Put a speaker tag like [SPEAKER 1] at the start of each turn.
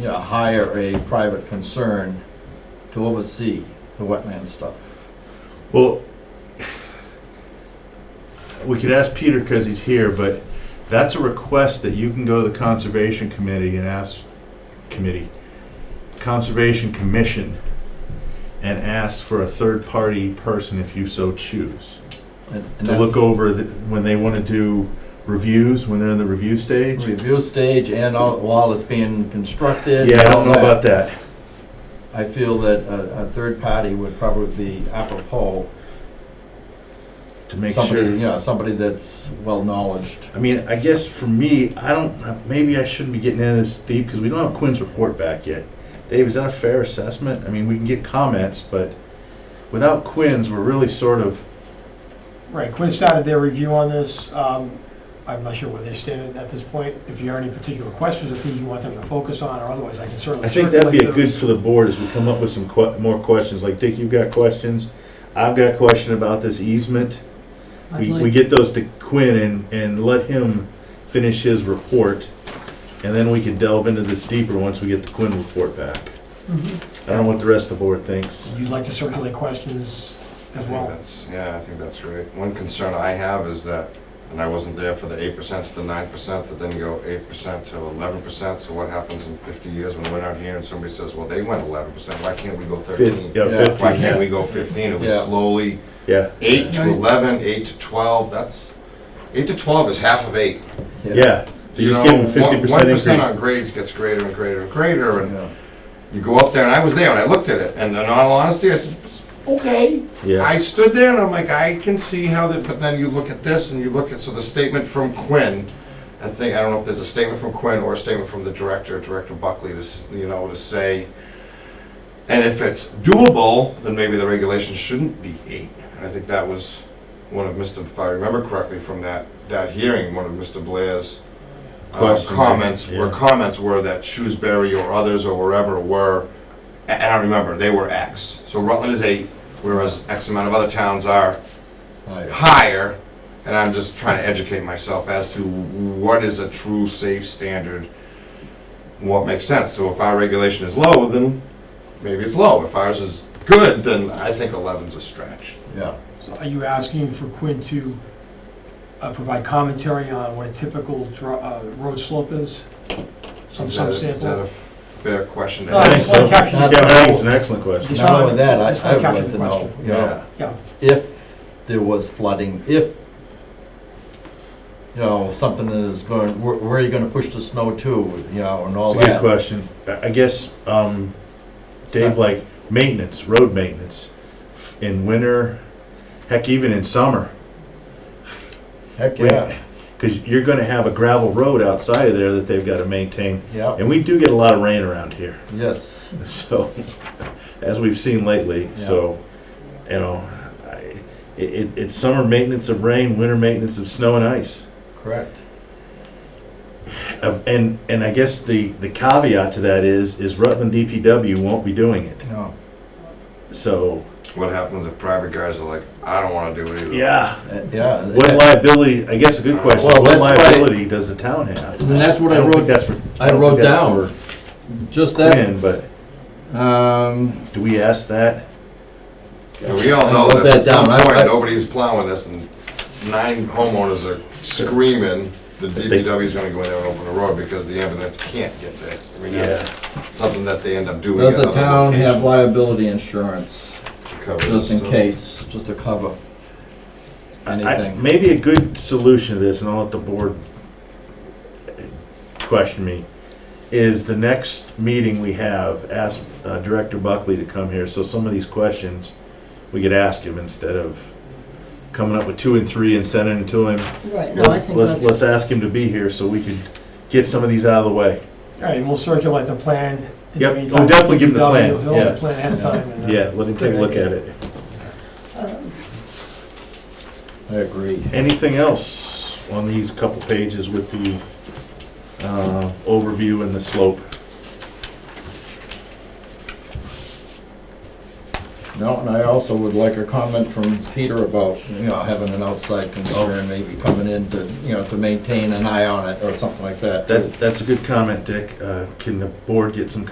[SPEAKER 1] you know, hire a private concern to oversee the wetland stuff.
[SPEAKER 2] Well, we could ask Peter because he's here, but that's a request that you can go to the Conservation Committee and ask, committee, Conservation Commission, and ask for a third-party person if you so choose.
[SPEAKER 1] and- and
[SPEAKER 2] To look
[SPEAKER 1] that's
[SPEAKER 2] over the- when they want to do reviews, when they're in the review stage.
[SPEAKER 1] Review stage and all- while it's being constructed.
[SPEAKER 2] Yeah, I
[SPEAKER 1] and
[SPEAKER 2] don't know
[SPEAKER 1] all that.
[SPEAKER 2] about that.
[SPEAKER 1] I feel that a, a third party would probably be apropos.
[SPEAKER 2] To make
[SPEAKER 1] somebody,
[SPEAKER 2] sure.
[SPEAKER 1] You know, somebody that's well-knowledged.
[SPEAKER 2] I mean, I guess for me, I don't, maybe I shouldn't be getting into this deep because we don't have Quinn's report back yet. Dave, is that a fair assessment? I mean, we can get comments, but without Quinn's, we're really sort of,
[SPEAKER 3] Right, Quinn started their review on this. Um, I'm not sure where they stand at this point. If you have any particular questions or things you want them to focus on, or otherwise, I can certainly.
[SPEAKER 2] I think that'd be a
[SPEAKER 3] circulate
[SPEAKER 2] good
[SPEAKER 3] those.
[SPEAKER 2] for the board as we come up with some que- more questions. Like Dick, you've got questions. I've got a question about this easement.
[SPEAKER 4] I'd
[SPEAKER 2] We,
[SPEAKER 4] like-
[SPEAKER 2] we get those to Quinn and, and let him finish his report. And then we can delve into this deeper once we get the Quinn report back.
[SPEAKER 4] Mhm.
[SPEAKER 2] I don't know what the rest of the board thinks.
[SPEAKER 3] You'd like to circulate questions
[SPEAKER 5] I
[SPEAKER 3] as
[SPEAKER 5] think
[SPEAKER 3] well.
[SPEAKER 5] that's, yeah, I think that's great. One concern I have is that, and I wasn't there for the eight percent to the nine percent, that then go eight percent to eleven percent, so what happens in fifty years when we're out here and somebody says, well, they went eleven percent, why can't we go
[SPEAKER 2] Fif-
[SPEAKER 5] thirteen?
[SPEAKER 2] yeah,
[SPEAKER 1] Yeah.
[SPEAKER 5] Why
[SPEAKER 2] 15,
[SPEAKER 5] can't we
[SPEAKER 2] yeah,
[SPEAKER 5] go fifteen, and we
[SPEAKER 1] Yeah.
[SPEAKER 5] slowly,
[SPEAKER 2] yeah.
[SPEAKER 5] eight to
[SPEAKER 4] Right.
[SPEAKER 5] eleven, eight to twelve, that's, eight to twelve is half of eight.
[SPEAKER 2] Yeah, so you just give them fifty
[SPEAKER 5] One
[SPEAKER 2] percent
[SPEAKER 5] percent on
[SPEAKER 2] increase.
[SPEAKER 5] grades gets greater and greater and greater, and
[SPEAKER 1] Yeah.
[SPEAKER 5] you go up there, and I was there, and I looked at it, and in all honesty, I said, okay,
[SPEAKER 2] Yeah,
[SPEAKER 5] I stood there and I'm like, I can see how that, but then you look at this and you look at, so the statement from Quinn, I think, I don't know if there's a statement from Quinn or a statement from the director, Director Buckley, to, s- you know, to say, and if it's doable, then maybe the regulation shouldn't be eight. And I think that was one of Mr., if I remember correctly from that, that hearing, one of Mr. Blair's uh,
[SPEAKER 2] Questions,
[SPEAKER 5] comments, where
[SPEAKER 2] yeah.
[SPEAKER 5] comments were that Shrewsbury or others or wherever were, a- and I remember, they were X. So Rutland is eight, whereas X amount of other towns are
[SPEAKER 1] Aye.
[SPEAKER 5] higher, and I'm just trying to educate myself as to what is a true safe standard, what makes sense. So if our regulation is low, then maybe it's low. If ours is good, then I think 11's a stretch.
[SPEAKER 1] Yeah,
[SPEAKER 3] So are you asking for Quinn to uh, provide commentary on what a typical dro- uh, road slope is? Some
[SPEAKER 5] Is that a- Is that
[SPEAKER 3] subsample?
[SPEAKER 5] a fair question to
[SPEAKER 3] No, Oh, I
[SPEAKER 2] I
[SPEAKER 5] ask?
[SPEAKER 2] think
[SPEAKER 3] just
[SPEAKER 2] so.
[SPEAKER 3] want to capture
[SPEAKER 2] yeah,
[SPEAKER 3] the-
[SPEAKER 1] Not-
[SPEAKER 2] I think it's an excellent question.
[SPEAKER 3] Just
[SPEAKER 1] not
[SPEAKER 3] wanna-
[SPEAKER 1] only that, I,
[SPEAKER 3] just wanna
[SPEAKER 1] I would
[SPEAKER 3] capture
[SPEAKER 1] like
[SPEAKER 3] the
[SPEAKER 1] to know,
[SPEAKER 3] question.
[SPEAKER 1] you know,
[SPEAKER 5] Yeah.
[SPEAKER 1] if there was flooding, if, you know, something is going, where, where are you gonna push the snow to, you know, and all
[SPEAKER 2] It's a good
[SPEAKER 1] that.
[SPEAKER 2] question. I I guess, um, Dave, like, maintenance, road maintenance, in winter, heck, even in summer.
[SPEAKER 1] Heck, yeah,
[SPEAKER 2] Cause you're gonna have a gravel road outside of there that they've gotta maintain,
[SPEAKER 1] yeah,
[SPEAKER 2] and we do get a lot of rain around here.
[SPEAKER 1] yes,
[SPEAKER 2] So, as we've seen lately,
[SPEAKER 1] Yeah.
[SPEAKER 2] so, you know, I, it, it- it's summer maintenance of rain, winter maintenance of snow and ice.
[SPEAKER 1] correct.
[SPEAKER 2] Uh, And, and I guess the, the caveat to that is, is Rutland DPW won't be doing it.
[SPEAKER 1] No,
[SPEAKER 2] So,
[SPEAKER 5] What happens if private guys are like, I don't want to do it either?
[SPEAKER 2] yeah,
[SPEAKER 1] uh, yeah.
[SPEAKER 2] what liability, I guess a good question,
[SPEAKER 1] Well,
[SPEAKER 2] what
[SPEAKER 1] that's why-
[SPEAKER 2] liability does the town have?
[SPEAKER 1] And that's what I
[SPEAKER 2] don't think
[SPEAKER 1] wrote-
[SPEAKER 2] that's for-
[SPEAKER 1] I
[SPEAKER 2] don't
[SPEAKER 1] wrote
[SPEAKER 2] think that's
[SPEAKER 1] down Just
[SPEAKER 2] for
[SPEAKER 1] that,
[SPEAKER 2] Quinn, but
[SPEAKER 1] um,
[SPEAKER 2] do we ask that?
[SPEAKER 5] And we all know
[SPEAKER 1] I wrote
[SPEAKER 5] that at
[SPEAKER 1] that
[SPEAKER 5] some
[SPEAKER 1] down. I- I-
[SPEAKER 5] point, nobody's plowing this, and nine homeowners are screaming, the DPW's gonna go in there and open the road because the ambulance can't get there. I mean, that's something that they end up doing.
[SPEAKER 1] Does
[SPEAKER 5] at
[SPEAKER 1] the
[SPEAKER 5] other
[SPEAKER 1] town have
[SPEAKER 5] locations.
[SPEAKER 1] liability insurance,
[SPEAKER 5] Covers
[SPEAKER 1] just in
[SPEAKER 5] stuff.
[SPEAKER 1] case, just to cover
[SPEAKER 2] I-
[SPEAKER 1] anything?
[SPEAKER 2] Maybe a good solution to this, and I'll let the board question me, is the next meeting we have, ask uh, Director Buckley to come here, so some of these questions, we could ask him instead of coming up with two and three and sending them to him.
[SPEAKER 4] Right, no, I
[SPEAKER 2] Let's,
[SPEAKER 4] think
[SPEAKER 2] let's,
[SPEAKER 4] that's,
[SPEAKER 2] let's ask him to be here so we could get some of these out of the way.
[SPEAKER 3] All right, and we'll circulate the plan. in the
[SPEAKER 2] Yep, we'll
[SPEAKER 3] meantime.
[SPEAKER 2] definitely give them the plan,
[SPEAKER 3] We'll have
[SPEAKER 2] yeah.
[SPEAKER 3] the plan ahead of time. and, uh,
[SPEAKER 2] Yeah, let him take a look at it.
[SPEAKER 4] um,
[SPEAKER 1] I agree.
[SPEAKER 2] Anything else on these couple pages with the uh, overview and the slope?
[SPEAKER 1] No, and I also would like a comment from Peter about, you know, having an outside concern, maybe coming in to, you know, to maintain an eye on it or something like that. too.
[SPEAKER 2] That, that's a good comment, Dick. Uh, Can the board get some